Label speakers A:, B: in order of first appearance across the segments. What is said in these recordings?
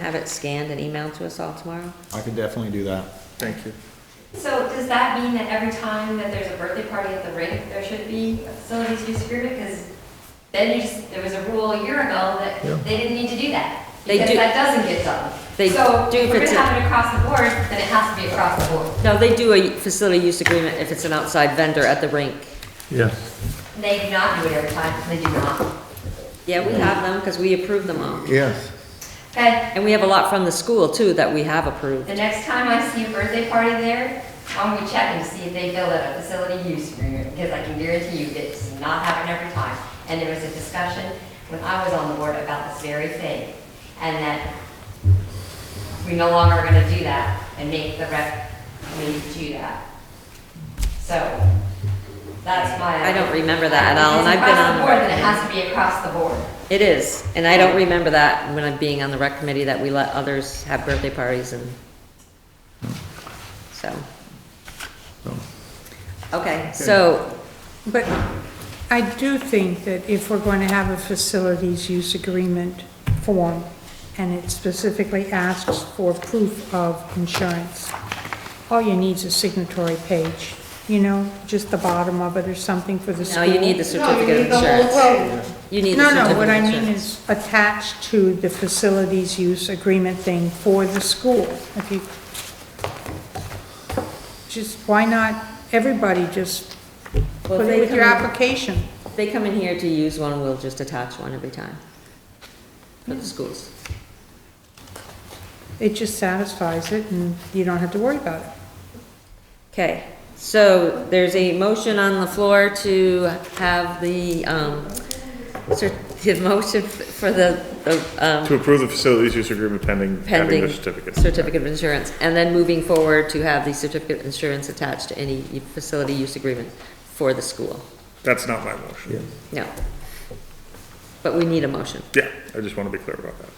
A: Have it scanned and emailed to us all tomorrow?
B: I could definitely do that. Thank you.
C: So does that mean that every time that there's a birthday party at the rink, there should be a facilities use agreement? Because then you just, there was a rule a year ago that
B: Yeah.
C: they didn't need to do that.
A: They
C: Because
A: do-
C: that doesn't get done.
A: They
C: So
A: do if
C: if we're
A: it's
C: gonna
A: a-
C: have it across the board, then it has to be across the board.
A: No, they do a facility use agreement if it's an outside vendor at the rink.
D: Yeah,
C: They do not do it every time, they do not.
A: Yeah, we have them because we approve them all.
B: Yes.
C: Okay,
A: And we have a lot from the school too that we have approved.
C: the next time I see a birthday party there, I'm gonna check and see if they fill out a facility use agreement, because I can guarantee you it's not happening every time. And there was a discussion when I was on the board about this very thing, and that we no longer are gonna do that and make the rec committee do that. So, that's my.
A: I don't remember that at all, and I've been on-
C: If it's across the board, then it has to be across the board.
A: It is, and I don't remember that when I'm being on the rec committee that we let others have birthday parties and, so. Okay, so,
E: But I do think that if we're going to have a facilities use agreement form, and it specifically asks for proof of insurance, all you need is a signatory page, you know, just the bottom of it or something for the
A: no,
E: school.
A: you need the certificate of insurance.
E: Well,
A: You need the
E: no, no,
A: certificate
E: what
A: of
E: I mean
A: insurance.
E: is attached to the facilities use agreement thing for the school. If you, just, why not, everybody just
A: Well,
E: put
A: they
E: it with your
A: come-
E: application?
A: If they come in here to use one, we'll just attach one every time for the schools.
E: It just satisfies it and you don't have to worry about it.
A: Okay, so there's a motion on the floor to have the, um, cer- the motion for the, the,
D: to
A: um,
D: approve the facilities use agreement pending adding
A: pending
D: the certificate.
A: certificate of insurance, and then moving forward to have the certificate of insurance attached to any facility use agreement for the school.
D: That's not my motion.
A: No. But we need a motion.
D: Yeah, I just want to be clear about that.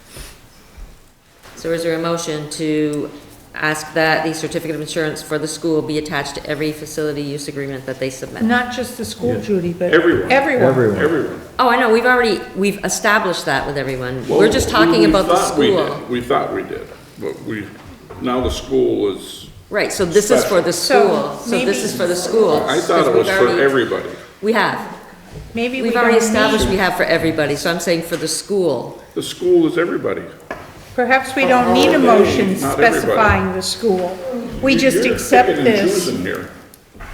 A: So is there a motion to ask that the certificate of insurance for the school be attached to every facility use agreement that they submit?
E: Not just the school, Judy, but.
D: Everyone.
E: Everyone.
D: Everyone.
A: Oh, I know, we've already, we've established that with everyone. We're just talking about the school.
F: We thought we did, but we, now the school is,
A: Right, so this is for the
E: So
A: school, so this is
E: maybe-
A: for the schools.
F: I thought
A: 'cause
F: it was
A: we've
F: for
A: already-
F: everybody.
A: We have.
E: Maybe we
A: We've already
E: don't
A: established
E: need,
A: we have for everybody, so I'm saying for the school.
F: The school is everybody.
E: perhaps we don't need a motion
F: Not everybody.
E: specifying the school. We just
F: You're
E: accept
F: picking and
E: this.
F: choosing here.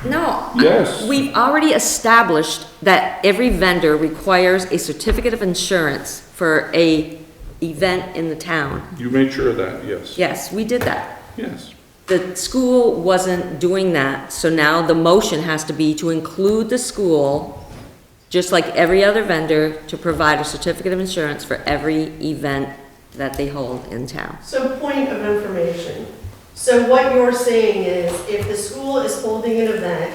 A: No.
F: Yes.
A: We've already established that every vendor requires a certificate of insurance for a event in the town.
F: You made sure of that, yes,
A: Yes, we did that.
F: yes.
A: The school wasn't doing that, so now the motion has to be to include the school, just like every other vendor, to provide a certificate of insurance for every event that they hold in town.
G: So point of information. So what you're saying is if the school is holding an event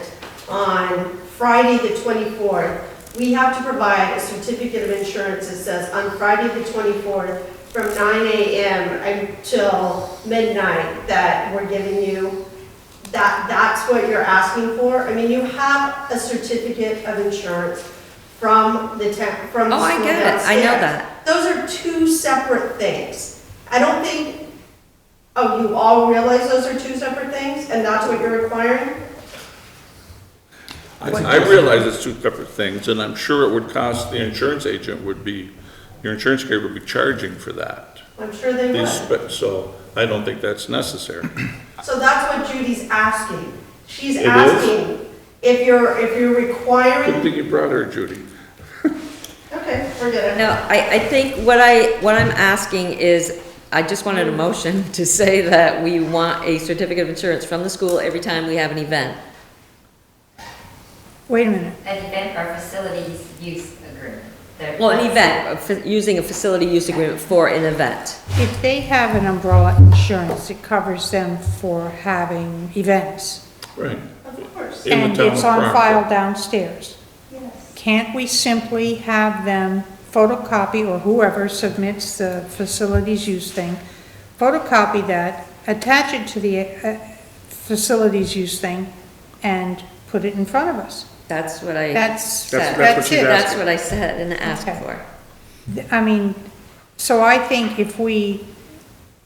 G: on Friday the 24th, we have to provide a certificate of insurance that says on Friday the 24th from 9 AM until midnight that we're giving you, that, that's what you're asking for? I mean, you have a certificate of insurance from the town, from the
A: Oh, I
G: school
A: get it. I know
G: downstairs.
A: that.
G: Those are two separate things. I don't think, oh, you all realize those are two separate things, and that's what you're requiring?
F: I I realize it's two separate things, and I'm sure it would cost, the insurance agent would be, your insurance carrier would be charging for that.
G: I'm sure they
F: These
G: would.
F: spe- So I don't think that's necessary.
G: So that's what Judy's asking. She's
F: It is?
G: asking if you're, if you're
F: Good
G: requiring,
F: thing you brought her, Judy.
G: okay, forget it.
A: No, I, I think what I, what I'm asking is, I just wanted a motion to say that we want a certificate of insurance from the school every time we have an event.
E: Wait a minute.
C: An event or facilities use agreement. There-
A: Well, an event, a fa- using a facility use agreement for an event.
E: If they have an umbrella insurance, it covers them for having events.
F: Right.
G: Of course.
F: In the
E: And
F: town
E: it's
F: of
E: on
F: Rockport.
E: file downstairs.
G: Yes.
E: Can't we simply have them photocopy, or whoever submits the facilities use thing, photocopy that, attach it to the uh, facilities use thing, and put it in front of us?
A: That's what I.
E: That's,
A: That's-
E: that's
D: she's
E: it.
A: That's what I said and asked
E: Okay.
A: for.
E: I mean, so I think if we